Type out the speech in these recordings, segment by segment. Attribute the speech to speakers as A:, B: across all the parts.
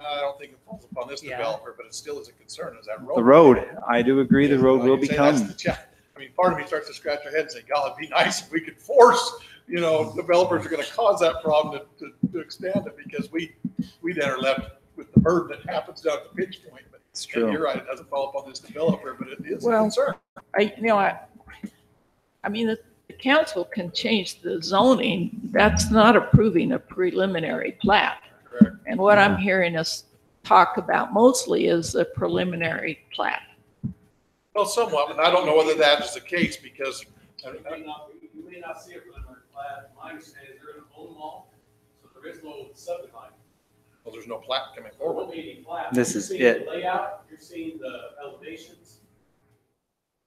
A: I don't think it falls upon this
B: Yeah.
A: developer, but it still is a concern, is that road.
C: The road, I do agree, the road
A: Well,
C: will
A: you say that's the
C: become,
A: cha- I mean, part of me starts to scratch their head and say, God, it'd be nice if we could force, you know, developers are gonna cause that problem to, to, to expand it because we, we then are left with the burden that happens down at the pinch point. But
C: it's
A: and
C: true.
A: you're right, it doesn't fall upon this developer, but it is a
B: Well-
A: concern.
B: I, you know, I, I mean, the the council can change the zoning. That's not approving a preliminary plat.
A: Correct.
B: And what I'm hearing us talk about mostly is the preliminary plat.
A: Well, somewhat, and I don't know whether that is the case because, I
D: You may not, you may not see it from the plat, my understanding is they're in an own mall, so there is no subdivision.
A: well, there's no plat coming
D: There won't
A: forward.
D: be any plat.
C: This
D: You're
C: is
D: seeing
C: it.
D: the Layout, you're seeing the elevations,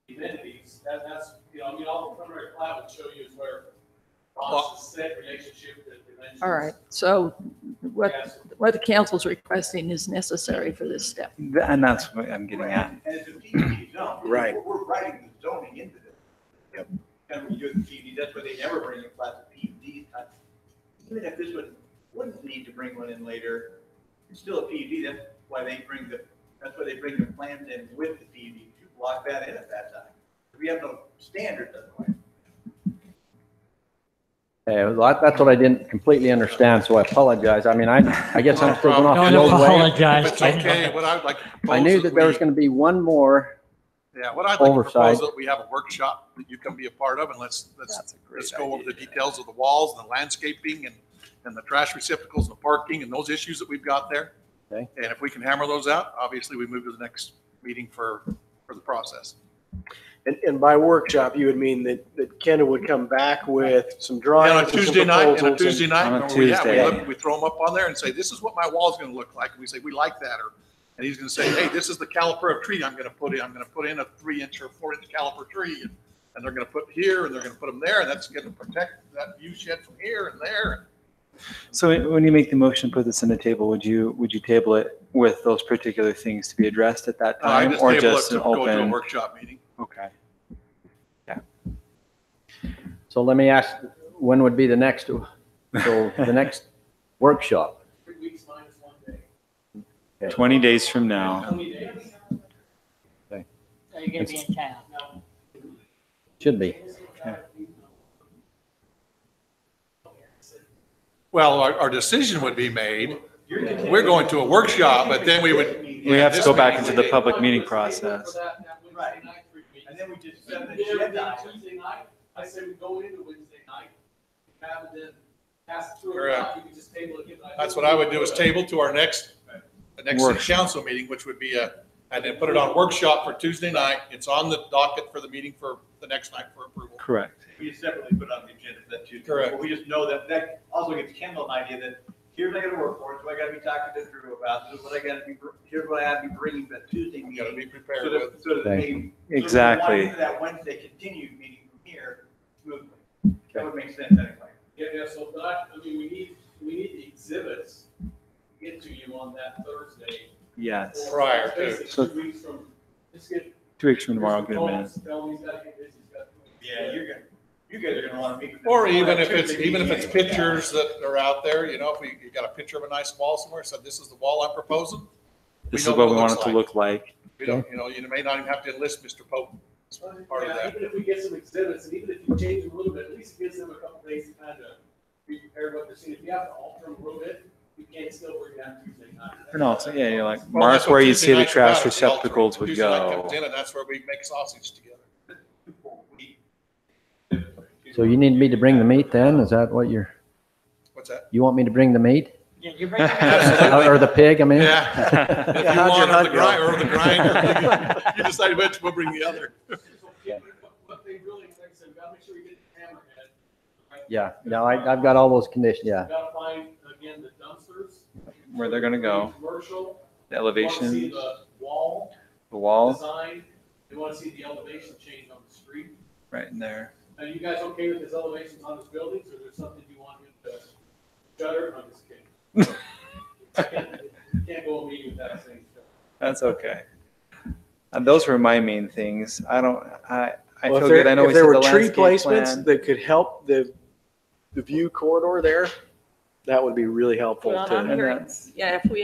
D: the amenities, that, that's, you know, I mean, all the preliminary plat would show you is where lots is set, relationship, the dimensions.
B: All right, so what,
D: Yes.
B: what the council's requesting is necessary for this step.
C: Th- And that's what I'm getting at.
E: And it's a PDD zone.
F: Right.
E: We're we're writing the zoning into this.
F: Yep.
E: And we do the PDD, that's why they never bring a class of PUD. Even if this one wouldn't need to bring one in later, it's still a PUD, that's why they bring the, that's why they bring the plans in with the PUD to block that in at that time. We have no standards otherwise.
G: Yeah, well, that- that's what I didn't completely understand, so I apologize. I mean, I, I guess I'm still going off the
A: No
G: old way.
A: If it's okay, what I would like to propose.
G: I knew that there was
A: we-
G: going to be one more.
A: Yeah, what I'd like to propose
G: oversight.
A: that we have a workshop that you can be a part of and let's, let's, let's go over the details of the walls and the landscaping and, and the trash receptacles and the parking and those issues that we've got there.
G: Okay.
A: And if we can hammer those out, obviously we move to the next meeting for, for the process.
F: And, and by workshop, you would mean that, that Kendall would come back with some
A: And
F: drawings.
A: on a
F: and some
A: Tuesday night, and a
F: proposals and-
A: Tuesday night,
C: On a
A: and we, yeah, we
C: Tuesday.
A: look, we throw them up on there and say, this is what my wall's gonna look like. And we say, we like that, or, and he's gonna say, hey, this is the caliper of tree I'm gonna put in. I'm gonna put in a three inch or four inch caliper tree. And, and they're gonna put here, and they're gonna put them there, and that's gonna protect that view shed from here and there.
C: So when you make the motion, put this on the table, would you, would you table it with those particular things to be addressed at that
A: Uh, I
C: time? Um, Or
A: table it
C: just
A: to
C: an
A: go to a
C: open?
A: Workshop meeting.
C: Okay.
G: So let me ask, when would be the next, so the next workshop?
D: Three weeks minus one day.
C: 20 days from now.
D: Twenty days.
H: Are you gonna be in town?
D: No.
G: Should be.
A: Well, our, our decision would be made. We're going to a workshop, but then we would.
C: We have to
A: this
C: go back
A: meeting
C: into
A: would
C: the
A: be-
C: public meeting
D: Stay there for
C: process.
D: that- that Wednesday
E: Right.
D: night, three weeks.
E: And then we just
D: If
E: set the
D: we did everything
E: agenda
D: on
E: item.
D: Tuesday night, I say we go into Wednesday night, have it then, pass it through,
A: Correct.
D: you can just table it. give it-
A: uh, That's what I would do is table to our next, the next city
C: Workshop.
A: council meeting, which would be a, and then put it on workshop for Tuesday night. It's on the docket for the meeting for the next night for approval.
C: Correct.
E: We just separately put it on the agenda for that Tuesday.
A: Correct.
E: But We just know that, that also gives Kendall an idea that here's what I gotta work for, it's what I gotta be talking to Drew about, this is what I gotta be, br- here's what I have to be bringing to that Tuesday
A: You gotta
E: meeting.
A: be
E: So
A: prepared with,
E: that, so that they. So we
C: Exactly.
E: want That Wednesday continued meeting from here smoothly. That would make sense anyway.
D: Yeah, yeah, so, but I, I mean, we need, we need the exhibits to get to you on that Thursday.
C: Yes.
A: Prior to.
D: Basically,
C: So-
D: Two weeks from, just get.
C: Two weeks from tomorrow, I'll get a minute.
D: Tell him he's gotta get busy, he's gotta-
E: Yeah, you're gonna, you guys are gonna wanna meet. with them.
A: or even if it's,
E: Tuesday
A: even if it's
E: meeting.
A: pictures that are out there, you know, if we, you got a picture of a nice wall somewhere, said this is the wall I'm proposing.
C: This
A: know
C: is what we
A: it
C: want
A: looks
C: it to look like.
A: We don't, you know, you may not even have to enlist Mr. Pope. as Part of
D: Yeah,
A: that.
D: Even if we get some exhibits, and even if you change them a little bit, at least it gives them a couple days to kind of be prepared what they're seeing. If you have to alter them a little bit, you can't still work it out Tuesday night.
C: And also, yeah, you're like,
A: Well, that's
C: mark
A: what
C: where you
A: Tuesday
C: see the
A: night's
C: trash
A: about, is the alternate.
C: receptacles would
A: Tuesday night
C: go.
A: comes in, And that's where we make sausage together.
G: So you need me to bring the meat then? Is that what you're,
A: What's that?
G: you want me to bring the meat?
H: Yeah, you're bringing
A: Absolutely.
G: Or the pig, I mean?
A: Yeah. If you
C: how'd your
A: want on the
C: hug go?
A: grinder, or the grinder, you decide which, we'll bring the other.
D: What- What they really, like I said, we gotta make sure we get the hammerhead. right?
G: Yeah, no, I, I've got all those conditions, yeah.
D: We Gotta find, again, the dumpsters.
C: Where they're gonna go.
D: Commercial.
C: The
D: We wanna
C: elevation,
D: see the wall
C: the wall,
D: design, we wanna see the elevation change on the street.
C: right in there.
D: Are you guys okay with his elevations on his buildings, or is there something you want him to gutter? I'm just kidding. You Can't go a meeting without saying stuff.
C: That's okay. And those were my main things. I don't, I, I
F: Well,
C: feel
F: if there-
C: good. I know
F: if
C: we said
F: there
C: the
F: were tree
C: landscape
F: placements
C: plan.
F: that could help the, the view corridor there, that would be really helpful
B: Well,
F: to.
B: I'm hearing, yeah, if we